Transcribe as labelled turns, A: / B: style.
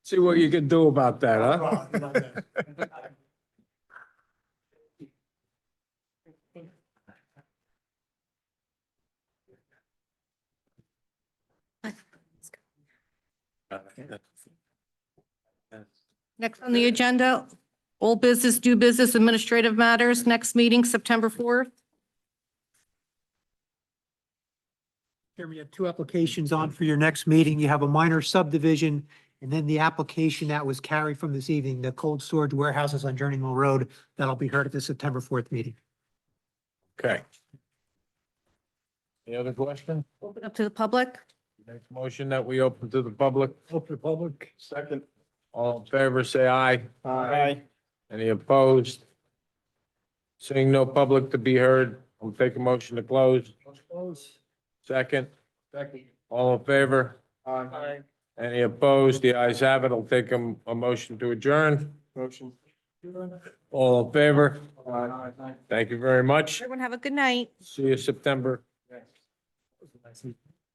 A: See what you can do about that, huh?
B: Next on the agenda, old business, new business, administrative matters. Next meeting, September 4th.
C: Chairman, you have two applications on for your next meeting. You have a minor subdivision and then the application that was carried from this evening, the cold storage warehouses on Journey Mill Road, that'll be heard at the September fourth meeting.
A: Okay.
D: Any other question?
B: Open up to the public.
D: Next motion that we open to the public.
A: Open public. Second.
D: All in favor, say aye.
A: Aye.
D: Any opposed? Seeing no public to be heard, I'll take a motion to close.
A: Close.
D: Second,
A: Second.
D: all in favor?
A: Aye.
D: Any opposed? The ayes have it. I'll take a, a motion to adjourn.
A: Motion.
D: All in favor?
A: Aye.
D: Thank you very much.
B: Everyone have a good night.
D: See you September.